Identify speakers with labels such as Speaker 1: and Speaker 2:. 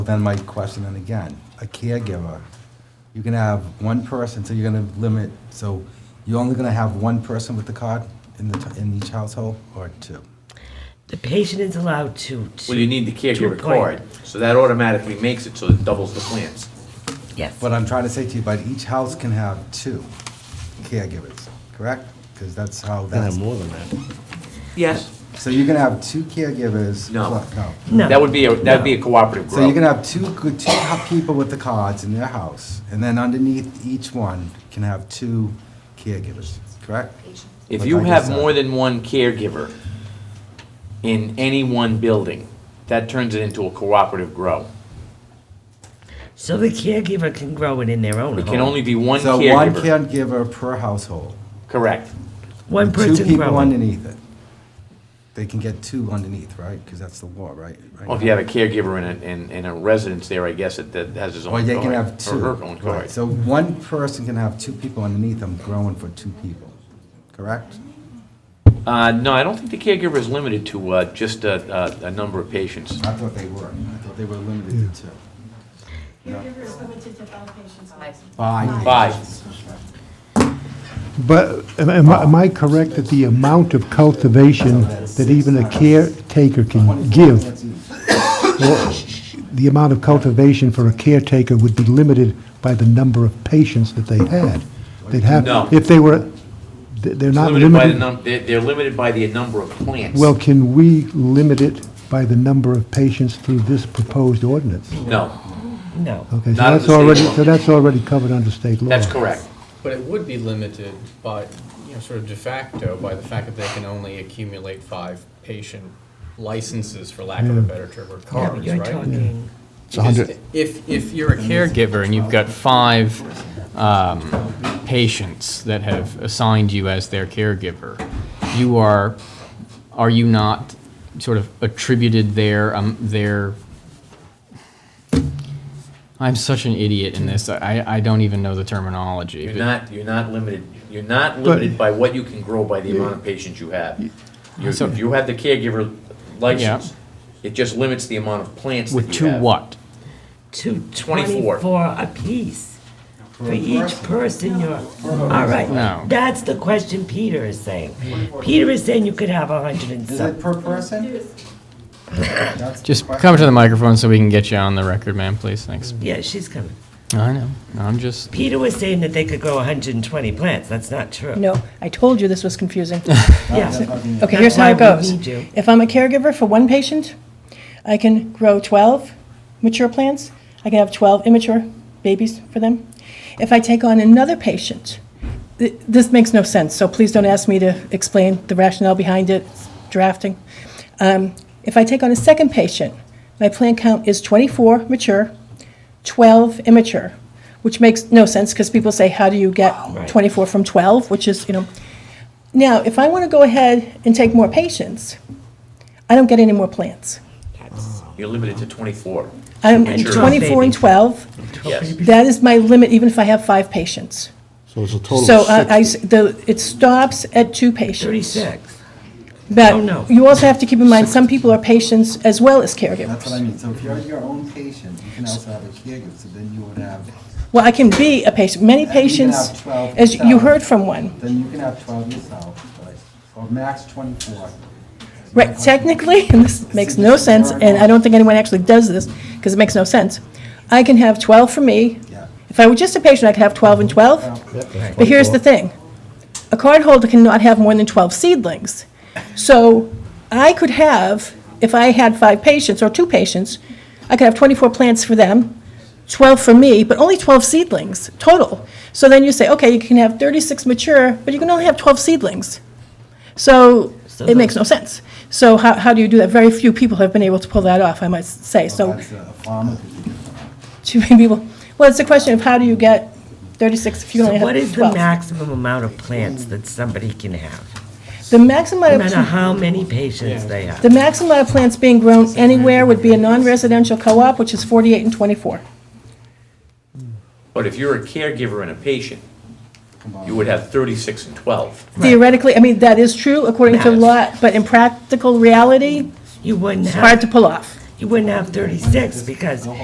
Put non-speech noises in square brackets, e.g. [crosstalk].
Speaker 1: Then my question, and again, a caregiver, you can have one person, so you're gonna limit, so you're only gonna have one person with the card in the, in each household, or two?
Speaker 2: The patient is allowed to.
Speaker 3: Well, you need the
Speaker 2: to
Speaker 3: caregiver
Speaker 2: appoint.
Speaker 3: card, so that automatically makes it so it doubles the plans.
Speaker 2: Yes.
Speaker 3: uh,
Speaker 1: What I'm trying to say to you, but each house can have two caregivers, correct? Because that's how
Speaker 4: Gonna have
Speaker 1: that's,
Speaker 4: more than that.
Speaker 3: Yes.
Speaker 1: so you're gonna have two caregivers?
Speaker 3: No.
Speaker 1: plus-
Speaker 2: No.
Speaker 3: That would be, a that'd be a cooperative
Speaker 1: So you're
Speaker 3: grow.
Speaker 1: gonna have two, good- two ho- people with the cards in their house, and then underneath each one can have two caregivers, correct? Like
Speaker 3: If
Speaker 1: uh,
Speaker 3: you
Speaker 1: I
Speaker 3: have
Speaker 1: just said.
Speaker 3: more than one caregiver in any one building, that turns it into a cooperative grow.
Speaker 2: So the caregiver can grow it in their own
Speaker 3: It
Speaker 2: home.
Speaker 3: can only be one
Speaker 1: So one
Speaker 3: caregiver.
Speaker 1: caregiver per household.
Speaker 3: Correct.
Speaker 2: One
Speaker 1: Two
Speaker 2: person
Speaker 1: people
Speaker 2: growing.
Speaker 1: underneath it. They can get two underneath, right? Because that's the law, right? Right
Speaker 3: Well, if you have a caregiver in a, in, in a residence there, I guess it, that has his own
Speaker 1: now. Or
Speaker 3: card.
Speaker 1: they can have
Speaker 3: Or
Speaker 1: two.
Speaker 3: her own
Speaker 1: Right,
Speaker 3: card.
Speaker 1: So one person can have two people underneath them growing for two people, correct?
Speaker 3: Uh, no, I don't think the caregiver is limited to, uh, just a, a, a number of patients.
Speaker 1: I thought they were. I thought they were limited to two.
Speaker 5: Caregiver is limited to five patients.
Speaker 1: Five.
Speaker 3: Five.
Speaker 6: But am- am I- am I correct that the amount of cultivation that even a caretaker can give,
Speaker 1: That's easy.
Speaker 6: or the amount of cultivation for a caretaker would be limited by the number of patients that they had? They'd have,
Speaker 3: No.
Speaker 6: if they were, th- they're not
Speaker 3: Limited by the
Speaker 6: limited.
Speaker 3: num, they're, they're limited by the number of plants.
Speaker 6: Well, can we limit it by the number of patients through this proposed ordinance?
Speaker 3: No,
Speaker 2: No.
Speaker 6: Okay, so
Speaker 3: Not
Speaker 6: that's
Speaker 3: under state
Speaker 6: already,
Speaker 3: law.
Speaker 6: so that's already covered under state law.
Speaker 3: that's correct.
Speaker 7: But it would be limited by, you know, sort of de facto by the fact that they can only accumulate five patient licenses, for lack of a better term, or cards,
Speaker 2: You're
Speaker 7: right?
Speaker 2: talking.
Speaker 4: Hmm. It's a hundred,
Speaker 7: If, if you're a caregiver and you've got five um, patients that have assigned you as their caregiver, you are, are you not sort of attributed their, um, their, I'm such an idiot in this, I, I don't even know the terminology.
Speaker 3: You're
Speaker 7: but-
Speaker 3: not, you're not limited, you're not limited by what you can grow by the amount of patients you have. You-
Speaker 7: So-
Speaker 3: If you have the caregiver license, it just limits the amount of plants
Speaker 7: With
Speaker 3: that you
Speaker 7: two
Speaker 3: have.
Speaker 7: what?
Speaker 2: Two
Speaker 3: 24.
Speaker 2: twenty-four apiece. For each person you're, all right.
Speaker 7: No.
Speaker 2: That's the question Peter is saying. Peter is saying you could have a hundred and
Speaker 1: Is
Speaker 2: some.
Speaker 1: it per person? That's the
Speaker 7: Just
Speaker 1: question.
Speaker 7: come to the microphone so we can get you on the record, ma'am, please. Thanks.
Speaker 2: Yeah, she's coming.
Speaker 7: I know. I'm just.
Speaker 2: Peter was saying that they could grow hundred and twenty plants. That's not true.
Speaker 5: No, I told you this was confusing.
Speaker 2: Yeah.
Speaker 5: Okay, here's how
Speaker 2: That's why we
Speaker 5: it goes.
Speaker 2: need you.
Speaker 5: If I'm a caregiver for one patient, I can grow 12 mature plants. I can have 12 immature babies for them. If I take on another patient, th- this makes no sense, so please don't ask me to explain the rationale behind it, drafting. Um, If I take on a second patient, my plant count is 24 mature, 12 immature, which makes no sense, because people say, how do you get 24 from 12, which is, you know. Now, if I want to go ahead and take more patients, I don't get any more plants.
Speaker 3: You're limited to twenty-four.
Speaker 5: I'm
Speaker 3: Mature.
Speaker 5: 24 and
Speaker 2: Baby.
Speaker 5: 12.
Speaker 3: Yes,
Speaker 5: That is my limit, even if I have five patients.
Speaker 4: so it's a total
Speaker 5: So uh,
Speaker 4: of
Speaker 5: I, I
Speaker 4: six.
Speaker 5: s- the, it stops at two patients.
Speaker 2: Thirty-six.
Speaker 5: But
Speaker 2: Oh, no.
Speaker 5: you also have to keep in mind, some people are patients as well as
Speaker 1: That's what I
Speaker 5: caregivers.
Speaker 1: mean. So if you're your own patient, you can also have a caregiver, so then you would have,
Speaker 5: Well, I can be a patient, many
Speaker 1: And you can
Speaker 5: patients,
Speaker 1: have 12
Speaker 5: as you
Speaker 1: yourself.
Speaker 5: heard from one.
Speaker 1: then you can have twelve yourself, right? Or max twenty-four.
Speaker 5: Right, technically, [laughs] and this makes no sense, and I don't think anyone actually does this, because it makes no sense. I can have 12 for me.
Speaker 1: Yeah.
Speaker 5: If I were just a patient, I could have 12 and 12. But here's the thing. A cardholder cannot have more than 12 seedlings. So I could have, if I had five patients or two patients, I could have 24 plants for them, 12 for me, but only 12 seedlings total. So then you say, okay, you can have 36 mature, but you can only have 12 seedlings. So
Speaker 2: So
Speaker 5: it makes no sense. So how, how do you do that? Very few people have been able to pull that off, I must say. So
Speaker 1: That's a farmer could do that.
Speaker 5: too many people, well, it's a question of how do you get 36 if you
Speaker 2: So
Speaker 5: only have 12?
Speaker 2: what is the maximum amount of plants that somebody can have?
Speaker 5: The maximum
Speaker 2: No
Speaker 5: amount of
Speaker 2: matter how many patients they have.
Speaker 5: The maximum amount of plants being grown anywhere would be a non-residential co-op, which is 48 and 24.
Speaker 3: but if you're a caregiver and a patient, you would have thirty-six and twelve.
Speaker 5: Theoretically, I mean, that is true according to law, but in practical reality,
Speaker 2: You wouldn't
Speaker 5: it's
Speaker 2: have,
Speaker 5: hard to pull off.
Speaker 2: you wouldn't have thirty-six because